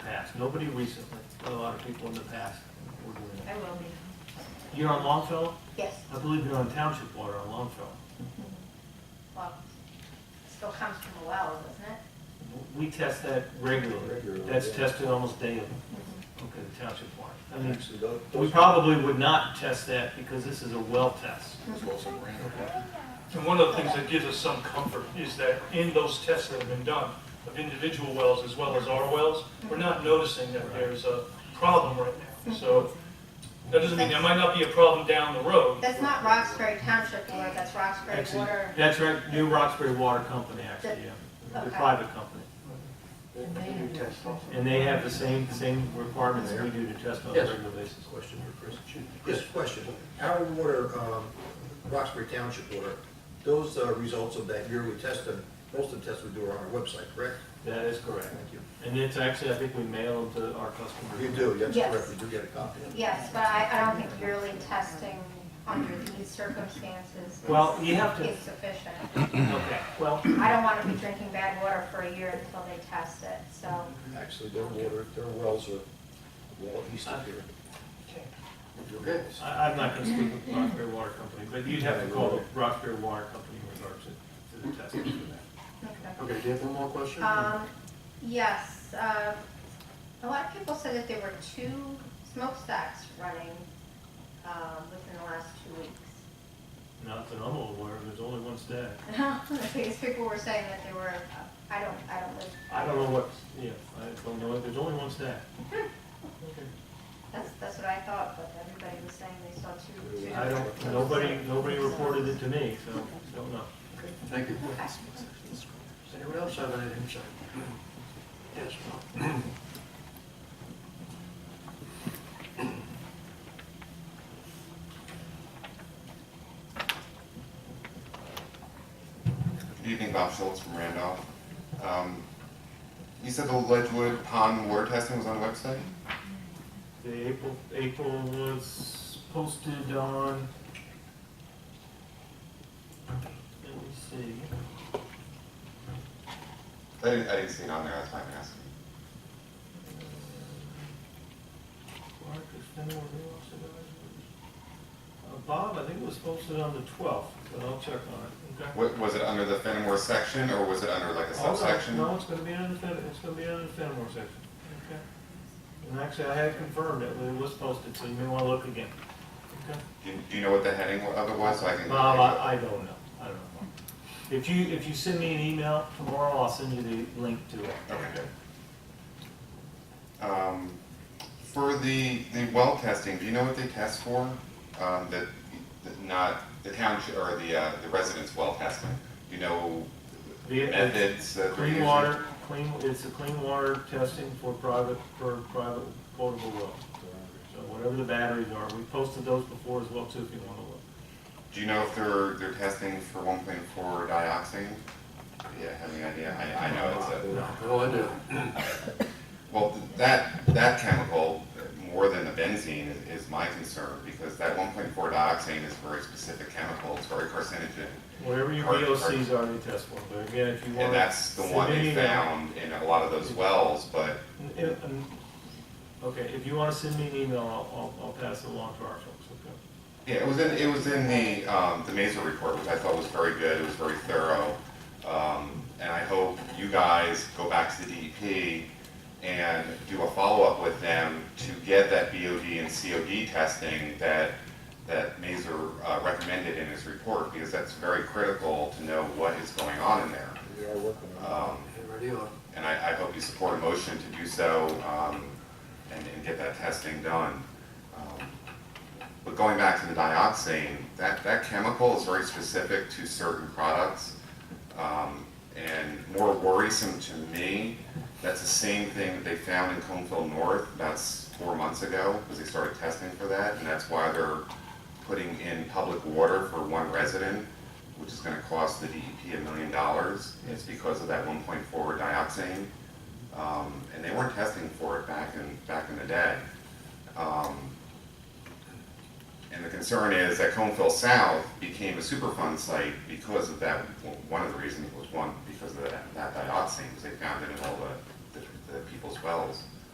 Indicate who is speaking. Speaker 1: past, nobody recently, but a lot of people in the past were doing
Speaker 2: I will be.
Speaker 1: it. You're on Longfellow?
Speaker 2: Yes,
Speaker 1: I believe you're on township water on Longfellow.
Speaker 2: well, still comes from a well, doesn't it?
Speaker 1: We test that regularly.
Speaker 3: Regularly,
Speaker 1: That's
Speaker 3: yeah.
Speaker 1: tested almost daily. Okay, township water. I mean,
Speaker 3: Actually, those-
Speaker 1: we probably would not test that because this is a well test.
Speaker 3: those wells are random.
Speaker 4: And one of the things that gives us some comfort is that in those tests that have been done of individual wells as well as our wells, we're not noticing that there's a problem right now. So that doesn't mean there might not be a problem down the road.
Speaker 2: That's not Roxbury Township water, that's Roxbury
Speaker 1: Actually,
Speaker 2: Water.
Speaker 1: That's right, New Roxbury Water Company, actually, yeah. They're a
Speaker 2: Okay.
Speaker 1: private company.
Speaker 3: They do test also.
Speaker 1: And they have the same, same requirements we do to test on a
Speaker 3: Yes.
Speaker 1: regular basis.
Speaker 3: Question for Chris.
Speaker 5: Just a question, our water, um, Roxbury Township water, those uh, results of that yearly testing, most of the tests we do are on our website, correct?
Speaker 1: That is correct.
Speaker 5: you.
Speaker 1: And it's actually, I think we mail them to our customers.
Speaker 5: You do, that's
Speaker 2: Yes.
Speaker 5: correct, we do get a copy.
Speaker 2: Yes, but I, I don't think yearly testing under these circumstances
Speaker 1: Well, you have to,
Speaker 2: is sufficient.
Speaker 1: okay, well,
Speaker 2: I don't want to be drinking bad water for a year until they test it, so.
Speaker 5: Actually, their water, their wells are well east of here. You Okay.
Speaker 1: I, I'm not gonna speak with Roxbury Water Company, but you'd have to call the Roxbury Water Company in regards to, to the testing for that.
Speaker 2: okay.
Speaker 3: Okay, do you have one more question?
Speaker 2: Um, yes, uh, a lot of people said that there were two smokestacks running, um, within the last two weeks.
Speaker 1: Not that I'm aware of, there's only one staff.
Speaker 2: Because people were saying that they were, uh, I don't, I don't live,
Speaker 1: I don't know what, yeah, I don't know, there's only one staff.
Speaker 2: that's, that's what I thought, but everybody was saying they saw two. two
Speaker 1: I
Speaker 2: different-
Speaker 1: don't, nobody, nobody reported it to me, so, don't know.
Speaker 3: Thank you.
Speaker 2: Okay.
Speaker 3: Anyone else have anything to say? Yes.
Speaker 6: Good evening, Bob Schultz from Randolph. Um, You said the Ledgewood Pond water testing was on the website?
Speaker 1: The April, April was posted on, let me see,
Speaker 6: I didn't, I didn't see it on there, that's why I'm asking.
Speaker 1: Mark, is anyone else about it? Uh, Bob, I think it was posted on the twelfth, but I'll check on it, okay?
Speaker 6: Wa- Was it under the Fenimore section, or was it under like a
Speaker 1: Oh, no,
Speaker 6: subsection?
Speaker 1: No, it's gonna be under the, Fen- it's gonna be under the Fenimore section, okay? And actually, I had confirmed it, but it was posted, so you may wanna look again, okay?
Speaker 6: Do you- do you know what the heading wa- of it was, so I can?
Speaker 1: Bob, I, I don't know, I don't know. If you, if you send me an email tomorrow, I'll send you the link to it.
Speaker 6: Okay, good. Um, For the, the well testing, do you know what they test for? Um, That, that not, the township, or the, uh, the residents' well testing? Do you know
Speaker 1: The-
Speaker 6: methods that they're
Speaker 1: Clean
Speaker 6: using?
Speaker 1: water, clean, it's a clean water testing for private, for private potable wells. So whatever the batteries are, we posted those before as well too, if you wanna look.
Speaker 6: Do you know if they're, they're testing for one point four dioxin? Yeah, have any idea? I, I know it's a,
Speaker 3: Oh, I do.
Speaker 6: well, that, that chemical, more than the benzene, is, is my concern, because that one point four dioxin is a very specific chemical, it's very carcinogen.
Speaker 1: Whatever your
Speaker 6: Are- are-
Speaker 1: VOCs are, they test for, but again, if you wanna.
Speaker 6: And that's the
Speaker 1: send
Speaker 6: one
Speaker 1: an
Speaker 6: they
Speaker 1: email-
Speaker 6: found in a lot of those wells, but
Speaker 1: N- n- n- Okay, if you wanna send me an email, I'll, I'll, I'll pass it along to our folks, okay?
Speaker 6: Yeah, it was in, it was in the, um, the Mazer report, which I thought was very good, it was very thorough. Um, and I hope you guys go back to the DEP and do a follow-up with them to get that BOD and COD testing that, that Mazer uh, recommended in his report, because that's very critical to know what is going on in there.
Speaker 5: We are working on
Speaker 6: Um,
Speaker 3: Ready on.
Speaker 6: and I, I hope you support a motion to do so, um, and, and get that testing done. Um, But going back to the dioxane, that, that chemical is very specific to certain products. Um, and more worrisome to me, that's the same thing that they found in Coneville North, that's four months ago, because they started testing for that, and that's why they're putting in public water for one resident, which is gonna cost the DEP a million dollars, it's because of that one point four dioxane. Um, and they weren't testing for it back in, back in the day. Um, and the concern is that Coneville South became a Superfund site because of that, well, one of the reasons was one, because of that that dioxin, because they found it in all the, the- the people's wells.